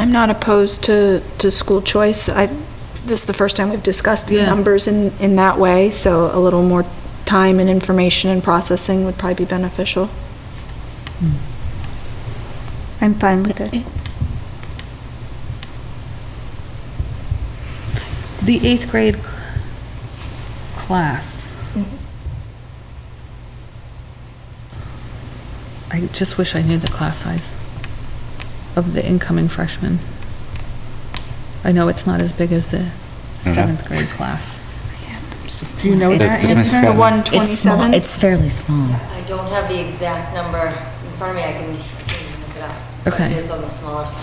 I'm not opposed to, to school choice. I, this is the first time we've discussed Yeah. numbers in, in that way, so a little more time and information and processing would probably be beneficial. Hmm. I'm fine with it. The eighth grade c- class. I just wish I knew the class size of the incoming freshmen. I know it's not as big as the Mhm. seventh grade class. Do Do you know that? It's Miss Andrew? The Scanlon. one It's small, twenty-seven? it's fairly small. I don't have the exact number in front of me, I can I can look it up. But Okay. It is on the smaller side.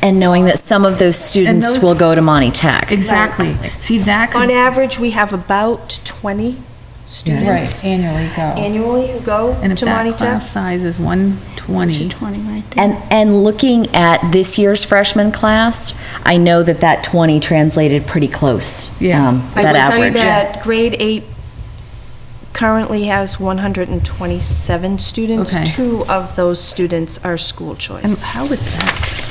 And knowing that some of those students those- will go to Monty Tech. Exactly. See, that On could. average, we have about 20 students Annually go. annually who go And if to Monty that Tech. class size is one twenty. 220 right there. And, and looking at this year's freshman class, I know that that 20 translated pretty close. Yeah. um, I That will tell you average. that grade eight currently has 127 Okay. students. Two of those students are school And choice. how is that?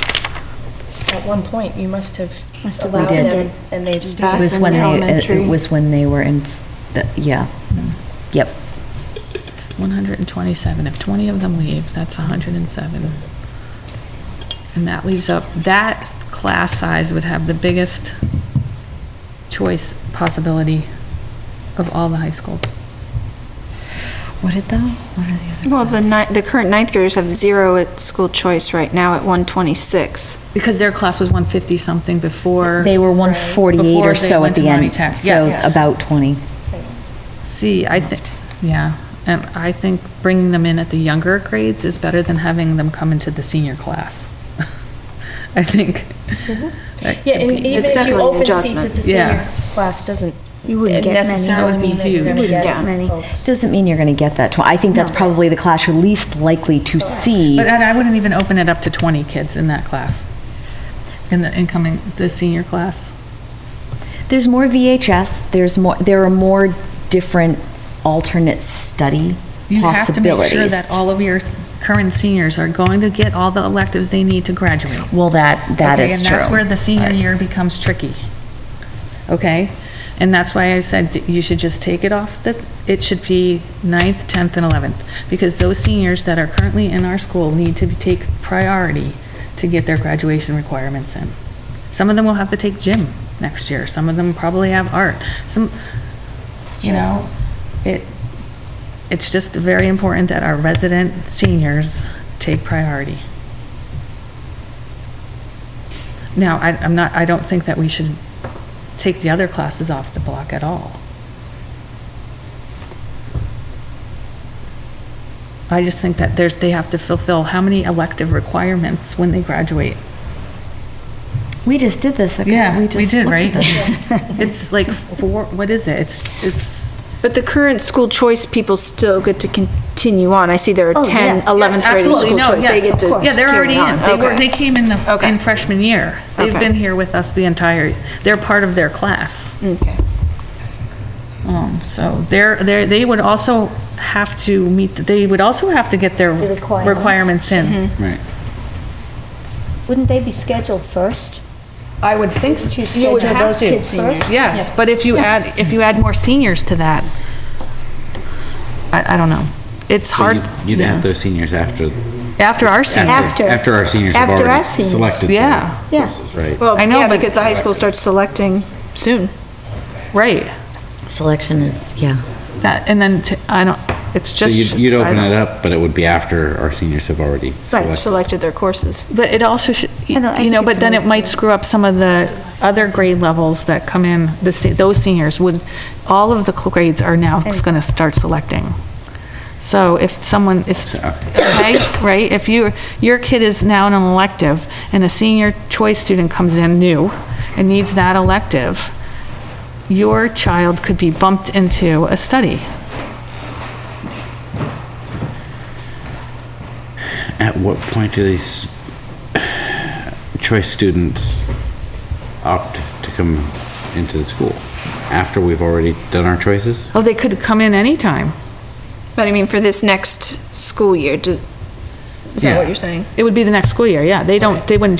At one point, you must have Must have allowed did. them, and they've It stayed. was when Back in they, it- elementary. it was when they were in, the yeah, yep. One hundred and twenty-seven. If twenty of them leave, that's hundred and seven. And that leaves up, that class size would have the biggest choice possibility of all the high school. What did though? What are the other? Well, the ni, the current ninth graders have zero at school choice right now at one twenty-six. Because their class was one fifty something before. They were 148 Before or they so went at to the Monty end. Tech, So yes. about 20. See, I think, yeah, and I think bringing them in at the younger grades is better than having them come into the senior class. I think. Mm-hmm. that Yeah, could and be- even It's if you definitely an open seats adjustment. at the Yeah. senior class, doesn't You wouldn't get many. necessarily That would be mean that you're huge. going to Yeah. get Many. folks. Doesn't mean you're going to get that 20. I think that's probably the class you're least likely to see. But I I wouldn't even open it up to 20 kids in that class, in the incoming, the senior class. There's more VHS. There's more. There are more different alternate study You have to make possibilities. sure that all of your current seniors are going to get all the electives they need to graduate. well, that that Okay, is And true. that's where the senior year becomes tricky. Okay? And that's why I said that you should just take it off the, it should be ninth, 10th, and 11th. Because those seniors that are currently in our school need to be- take priority to get their graduation requirements in. Some of them will have to take gym next year. Some of them probably have art. Some, you know, it, it's just very important that our resident seniors take priority. Now, I, I'm not, I don't think that we should take the other classes off the block at all. I just think that there's, they have to fulfill how many elective requirements when they graduate? we just did this. Okay? Yeah, we just did, looked at right? this. It's like four, what is it? It's, it's. But the current school choice people still get to continue on. I see there are Oh, ten, yes. eleventh graders in Absolutely, school no, choice. They get yes. to Yeah, they're already carry in. on. They were, Okay. they came in the, Okay. in freshman year. They've Okay. been here with us the entire, they're part of their class. Okay. Um, so they're, they're, they would also have to meet, they would also have to get their requirements. requirements in. Right. Wouldn't they be scheduled first? I would think you schedule those kids first? Yes, but if you add, if you add more seniors to that, I, I don't know. It's So hard. you'd- You'd yeah. have those seniors after. After our seniors, After. After our seniors have After already our seniors. selected their Yeah. Yeah. courses, right? Well, I know, yeah, but- because the high school starts selecting soon. right. Selection is yeah. That, and then, to- I don't, it's So just. you'd, you'd I open don't- it up, but it would be after our seniors have already Right, selected. selected their courses. But it also should, I don't- I you know, think but it's then more- it might screw up some of the other grade levels that come in, the, se- those seniors would, all of the cl- grades are now going to start selecting. So if someone is, okay, right, if you, your kid is now in an elective, and a senior choice student comes in new and needs that elective, your child could be bumped into a study. At what point do these choice students opt to come into the school? After we've already done our choices? Oh, they could come in anytime. But I mean, for this next school year, do, is that Yeah. what you're saying? It would be the next school year, yeah. They don't, they wouldn't just